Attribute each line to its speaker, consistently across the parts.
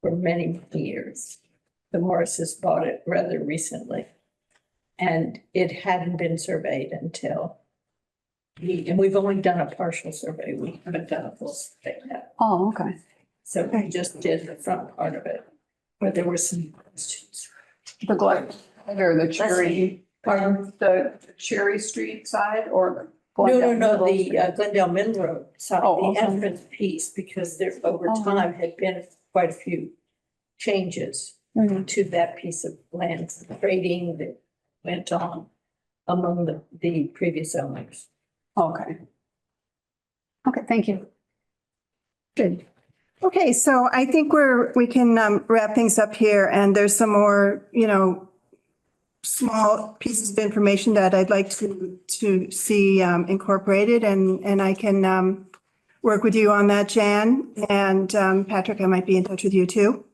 Speaker 1: for many years. The Morrises bought it rather recently. And it hadn't been surveyed until we, and we've only done a partial survey. We haven't done a full survey yet.
Speaker 2: Oh, okay.
Speaker 1: So we just did the front part of it, where there were some questions.
Speaker 2: The Glen, or the Cherry,
Speaker 1: Pardon?
Speaker 2: the Cherry Street side or?
Speaker 1: No, no,
Speaker 2: Glendale
Speaker 1: no,
Speaker 2: Middle
Speaker 1: the uh, Glendale Mill Road side,
Speaker 2: Oh,
Speaker 1: the
Speaker 2: okay.
Speaker 1: entrance piece, because there over
Speaker 2: Oh.
Speaker 1: time had been quite a few changes
Speaker 2: Mhm.
Speaker 1: to that piece of land, trading that went on among the, the previous owners.
Speaker 2: Okay. Okay, thank you.
Speaker 3: Good. Okay, so I think we're, we can um, wrap things up here and there's some more, you know, small pieces of information that I'd like to, to see um, incorporated and, and I can um, work with you on that, Jan. And um, Patrick, I might be in touch with you too.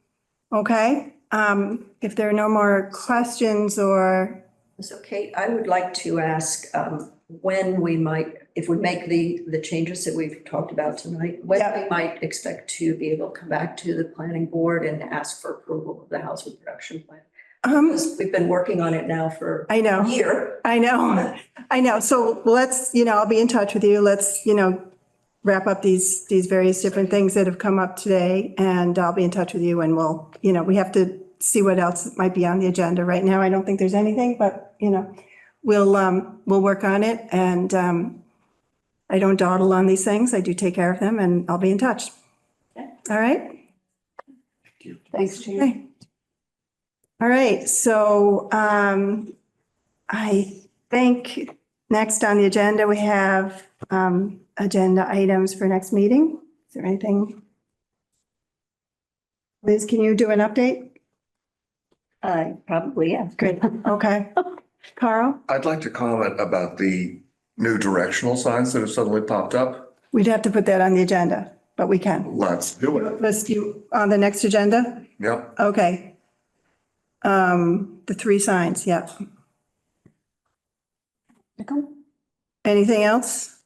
Speaker 3: Okay? Um, If there are no more questions or,
Speaker 4: So Kate, I would like to ask um, when we might, if we make the, the changes that we've talked about tonight, when
Speaker 3: Yeah.
Speaker 4: we might expect to be able to come back to the planning board and ask for approval of the housing production plan.
Speaker 3: um,
Speaker 4: Because We've been working on it now for
Speaker 3: I know.
Speaker 4: a year.
Speaker 3: I know, I know. So let's, you know, I'll be in touch with you. Let's, you know, wrap up these, these various different things that have come up today and I'll be in touch with you and we'll, you know, we have to see what else might be on the agenda right now. I don't think there's anything, but, you know, we'll, um, we'll work on it and, um, I don't dawdle on these things. I do take care of them and I'll be in touch. All right?
Speaker 2: Thanks, Jan.
Speaker 3: Okay. All right, so um, I think next on the agenda, we have um, agenda items for next meeting. Is there anything? Liz, can you do an update?
Speaker 4: Uh, probably, yeah.
Speaker 3: Great, okay. Carl,
Speaker 5: I'd like to comment about the new directional signs that have suddenly popped up.
Speaker 3: we'd have to put that on the agenda, but we can.
Speaker 5: Let's do it.
Speaker 3: List you on the next agenda?
Speaker 5: Yep.
Speaker 3: Okay. Um, The three signs, yep. Anything else?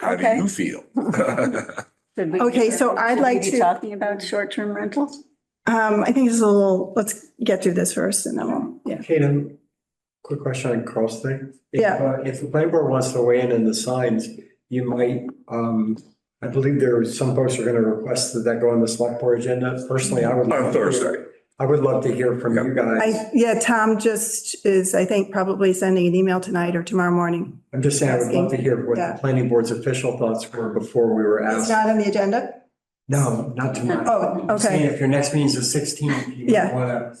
Speaker 5: How do
Speaker 3: Okay.
Speaker 5: you feel?
Speaker 2: Did we-
Speaker 3: Okay, so I'd
Speaker 2: should we
Speaker 3: like
Speaker 2: be
Speaker 3: to-
Speaker 2: Talking about short-term rentals?
Speaker 3: Um, I think it's a little, let's get through this first and then we'll, yeah.
Speaker 6: Kaden, quick question on Carl's thing. If,
Speaker 3: Yeah.
Speaker 6: uh, If the planning board wants to weigh in on the signs, you might, um, I believe there are some folks are gonna request that that go on the select board agenda. Personally, I would.
Speaker 5: On Thursday.
Speaker 6: I would love to hear from you guys.
Speaker 3: I, yeah, Tom just is, I think, probably sending an email tonight or tomorrow morning.
Speaker 6: I'm just saying, I would love to hear what
Speaker 3: Yeah.
Speaker 6: the planning board's official thoughts were before we were
Speaker 3: It's
Speaker 6: asked.
Speaker 3: not on the agenda?
Speaker 6: No, not tonight.
Speaker 3: Oh,
Speaker 6: I'm saying
Speaker 3: okay.
Speaker 6: If your next meeting's the sixteenth, you
Speaker 3: Yeah.
Speaker 6: wanna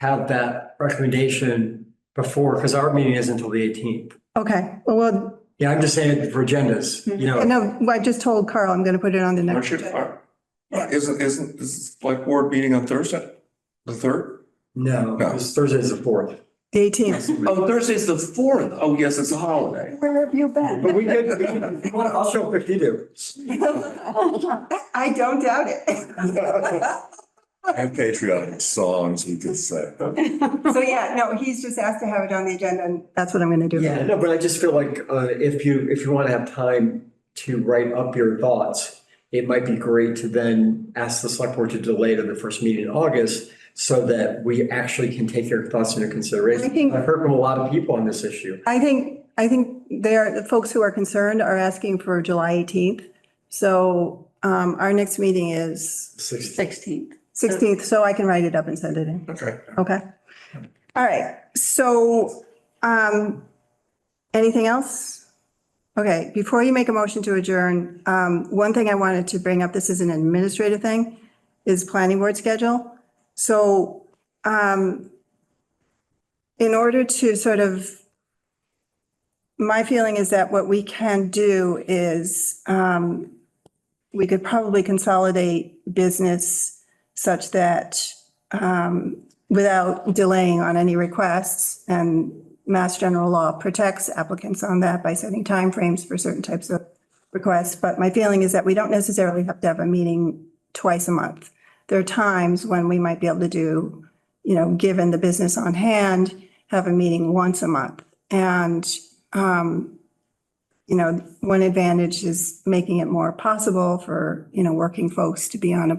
Speaker 6: have that recommendation before, because our meeting is until the eighteenth.
Speaker 3: Okay. Well,
Speaker 6: Yeah, I'm just saying for agendas, you know.
Speaker 3: well, no, I just told Carl I'm going to put it on the next.
Speaker 5: Aren't you- are- uh, Isn't, isn't, is like board meeting on Thursday? The third?
Speaker 6: No,
Speaker 5: No.
Speaker 6: it's Thursday's the fourth.
Speaker 3: The 18th.
Speaker 5: Oh, Thursday's the fourth. Oh, yes, it's a holiday.
Speaker 2: Where have you been?
Speaker 6: But we could, we could- you wanna- I'll show up if you do.
Speaker 3: I don't doubt it.
Speaker 5: I have patriotic songs we could say.
Speaker 3: So yeah, no, he's just asked to have it on the agenda and that's what I'm going to do.
Speaker 6: Yeah, no, but I just feel like, uh, if you, if you wanna have time to write up your thoughts, it might be great to then ask the select board to delay to the first meeting in August so that we actually can take your thoughts into
Speaker 3: I think-
Speaker 6: consideration. I've heard from a lot of people on this issue.
Speaker 3: I think, I think they are, the folks who are concerned are asking for July 18th. So um, our next meeting is
Speaker 6: Sixteen.
Speaker 2: Sixteenth.
Speaker 3: 16th, so I can write it up and send it in.
Speaker 5: Okay.
Speaker 3: Okay. All right. So, um, anything else? Okay, before you make a motion to adjourn, um, one thing I wanted to bring up, this is an administrative thing, is planning board schedule. So, um, in order to sort of, my feeling is that what we can do is, um, we could probably consolidate business such that, um, without delaying on any requests. And Mass General Law protects applicants on that by setting timeframes for certain types of requests. But my feeling is that we don't necessarily have to have a meeting twice a month. There are times when we might be able to do, you know, given the business on hand, have a meeting once a month. And, um, you know, one advantage is making it more possible for, you know, working folks to be on a